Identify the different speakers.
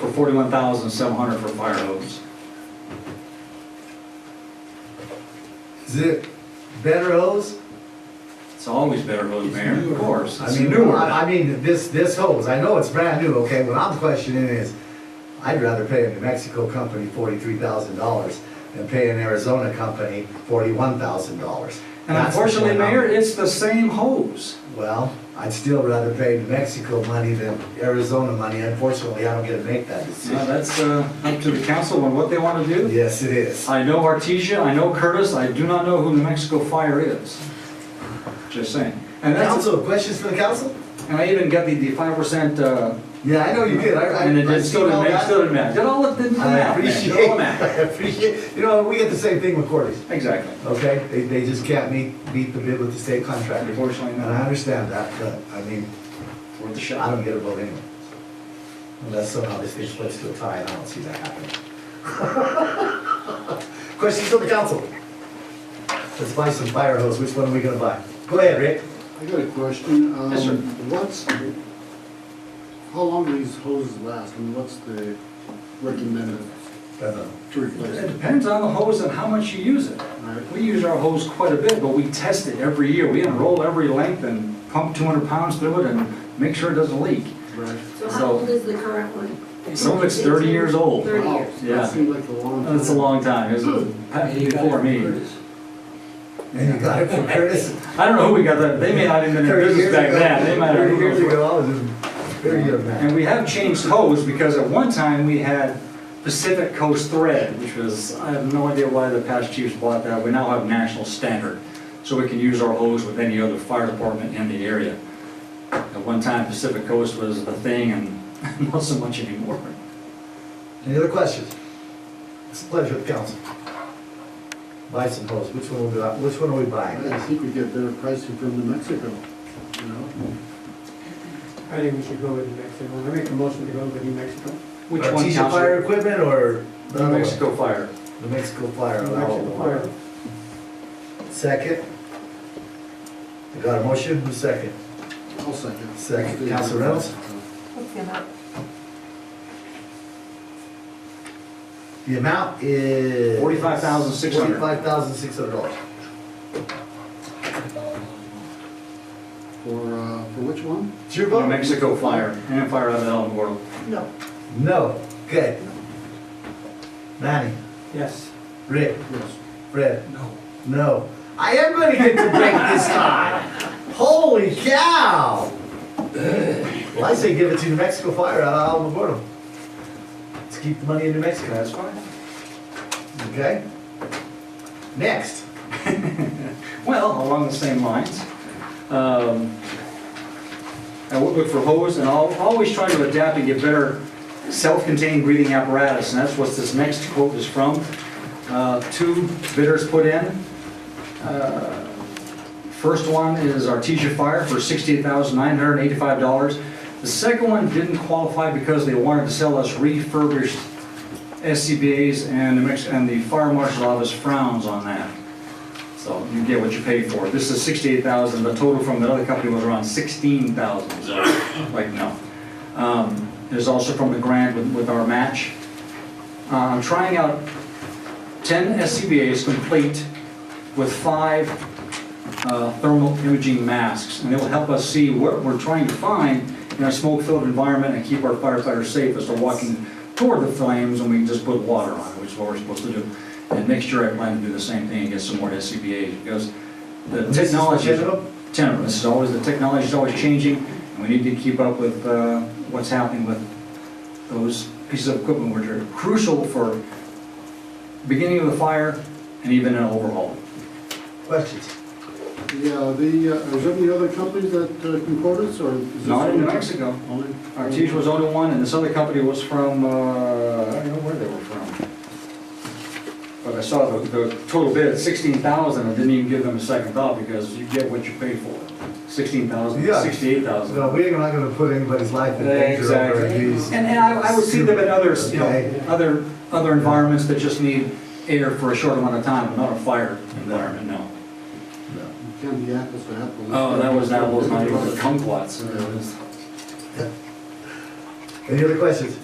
Speaker 1: for forty-one thousand seven hundred for fire hose.
Speaker 2: Is it better hose?
Speaker 1: It's always better hose, Mayor, of course.
Speaker 2: I
Speaker 1: It's
Speaker 2: mean,
Speaker 1: newer.
Speaker 2: I I mean, this, this hose, I know it's brand new, okay, what I'm questioning is, I'd rather pay a New Mexico company forty-three thousand dollars than pay an Arizona company forty-one thousand dollars.
Speaker 1: And unfortunately, Mayor, it's the same hose.
Speaker 2: Well, I'd still rather pay New Mexico money than Arizona money, unfortunately, I don't get to make that
Speaker 1: Now,
Speaker 2: decision.
Speaker 1: that's uh, up to the council on what they want to do.
Speaker 2: Yes, it is.
Speaker 1: I know Artesia, I know Curtis, I do not know who New Mexico Fire is. Just saying. And that's,
Speaker 2: Council, questions for the council?
Speaker 1: and I even got the, the five percent, uh,
Speaker 2: Yeah, I know you did, I, I.
Speaker 1: and it
Speaker 2: I
Speaker 1: did- still
Speaker 2: seen all
Speaker 1: didn't, ma-
Speaker 2: that.
Speaker 1: still didn't matter. Did all of the, the
Speaker 2: I
Speaker 1: math, man,
Speaker 2: appreciate,
Speaker 1: did all the
Speaker 2: I
Speaker 1: math.
Speaker 2: appreciate, you know, we get the same thing with Cortez,
Speaker 1: Exactly.
Speaker 2: okay? They, they just can't meet, meet the bid with the state contractor.
Speaker 1: Unfortunately,
Speaker 2: And I
Speaker 1: not
Speaker 2: understand that, but, I mean,
Speaker 1: worth the
Speaker 2: I don't
Speaker 1: shot.
Speaker 2: get a vote anyway. Unless somehow this thing splits to a tie, and I don't see that happening. Questions from the council? Let's buy some fire hose, which one are we gonna buy? Go ahead, Rick.
Speaker 3: I got a question. Um,
Speaker 1: Yes, sir.
Speaker 3: What's, how long do these hoses last and what's the recommended
Speaker 2: Don't know.
Speaker 3: to replace
Speaker 1: It
Speaker 3: it?
Speaker 1: depends on the hose and how much you use it.
Speaker 3: Right.
Speaker 1: We use our hose quite a bit, but we test it every year. We unroll every length and pump two hundred pounds through it and make sure it doesn't leak.
Speaker 3: Right.
Speaker 4: So
Speaker 1: So-
Speaker 4: how old is the current one?
Speaker 1: Some of it's 30 years old.
Speaker 4: Thirty
Speaker 3: Wow,
Speaker 4: years.
Speaker 1: Yeah.
Speaker 3: That seemed like a long time.
Speaker 1: That's a long time, it was before me.
Speaker 2: And you got it from Curtis?
Speaker 1: I don't know who we got that, they may not even have
Speaker 2: 30
Speaker 1: been in
Speaker 2: years
Speaker 1: business back
Speaker 2: ago.
Speaker 1: then, they might
Speaker 2: Thirty years
Speaker 1: have.
Speaker 2: ago, I was a very young man.
Speaker 1: And we have changed hose, because at one time we had Pacific Coast Thread, which was, I have no idea why the past chiefs bought that, we now have national standard, so we can use our hose with any other fire department in the area. At one time Pacific Coast was the thing, and not so much anymore.
Speaker 2: Any other questions? It's a pleasure of the council. Buy some hose, which one will we, buy- which one are we buying?
Speaker 3: I think we get better pricing from New Mexico, you know?
Speaker 5: I think we should go with New Mexico. I make a motion to go with New Mexico.
Speaker 1: Which
Speaker 2: Our
Speaker 1: one,
Speaker 2: Artesia
Speaker 1: Counselor?
Speaker 2: fire equipment or? the
Speaker 1: New
Speaker 2: other one?
Speaker 1: Mexico Fire.
Speaker 2: New Mexico Fire.
Speaker 5: New
Speaker 2: allow all
Speaker 5: Mexico
Speaker 2: the
Speaker 5: Fire.
Speaker 2: Second? I got a motion, who's second?
Speaker 3: I'll Uh, second.
Speaker 2: Second. Council Reynolds?
Speaker 4: What's the amount?
Speaker 2: The amount is?
Speaker 1: $45,600.
Speaker 2: Forty-five thousand six hundred dollars.
Speaker 3: For, uh, for which one?
Speaker 2: It's your
Speaker 1: New
Speaker 2: vote?
Speaker 1: Mexico Fire, and Fire out of El Gordo.
Speaker 3: No.
Speaker 2: No, good. Manny,
Speaker 5: Yes.
Speaker 2: Rick,
Speaker 3: Yes.
Speaker 2: Fred,
Speaker 5: No.
Speaker 2: no. I am gonna get to break this time. Holy cow! Well, I say give it to New Mexico Fire out of Alamogordo. Let's keep the money in New Mexico.
Speaker 1: That's fine.
Speaker 2: Okay? Next.
Speaker 1: Well, along the same lines, um, I would look for hose, and I'll always try to adapt and get better self-contained breathing apparatus, and that's what this next quote is from. Uh, Two bidders put in. Uh, First one is Artesia Fire for $68,985. The second one didn't qualify because they wanted to sell us refurbished SCBA's, and the Mex- and the Fire Marshal Office frowns on that. So you get what you pay for. This is sixty-eight thousand, the total from the other company was around sixteen thousand, so, like, no. Um, There's also from the grant with, with our match. Uh, I'm trying out ten SCBA's complete with five uh, thermal imaging masks, and it will help us see what we're trying to find in a smoke-filled environment and keep our firefighters safe as they're walking toward the flames, and we can just put water on it, which is what we're supposed to do. And next year, I plan to do the same thing and get some more SCBA's, because the
Speaker 2: This is
Speaker 1: technology.
Speaker 2: legitimate?
Speaker 1: Ten of them. This is always, the technology is always changing, and we need to keep up with uh, what's happening with those pieces of equipment, which are crucial for beginning of the fire and even an overhaul.
Speaker 2: Questions?
Speaker 3: Yeah, the, uh, is there any other companies that uh, can quote us or? is this
Speaker 1: Not in New
Speaker 3: only-
Speaker 1: Mexico.
Speaker 3: Only?
Speaker 1: Artesia was only one, and this other company was from, uh, I don't know where they were from. But I saw the, the total bid at sixteen thousand, I didn't even give them a second thought, because you get what you pay for. Sixteen thousand,
Speaker 2: Yeah.
Speaker 1: sixty-eight thousand.
Speaker 2: No, we're not gonna put anybody's life in danger over
Speaker 1: Exactly.
Speaker 2: these.
Speaker 1: And, and I, I would see them in others, you know,
Speaker 2: Okay.
Speaker 1: other, other environments that just need air for a short amount of time, not a fire environment, no.
Speaker 3: It Can be apples to apples.
Speaker 1: Oh, that was, that was not even the kumquats. it was-
Speaker 2: Any other questions?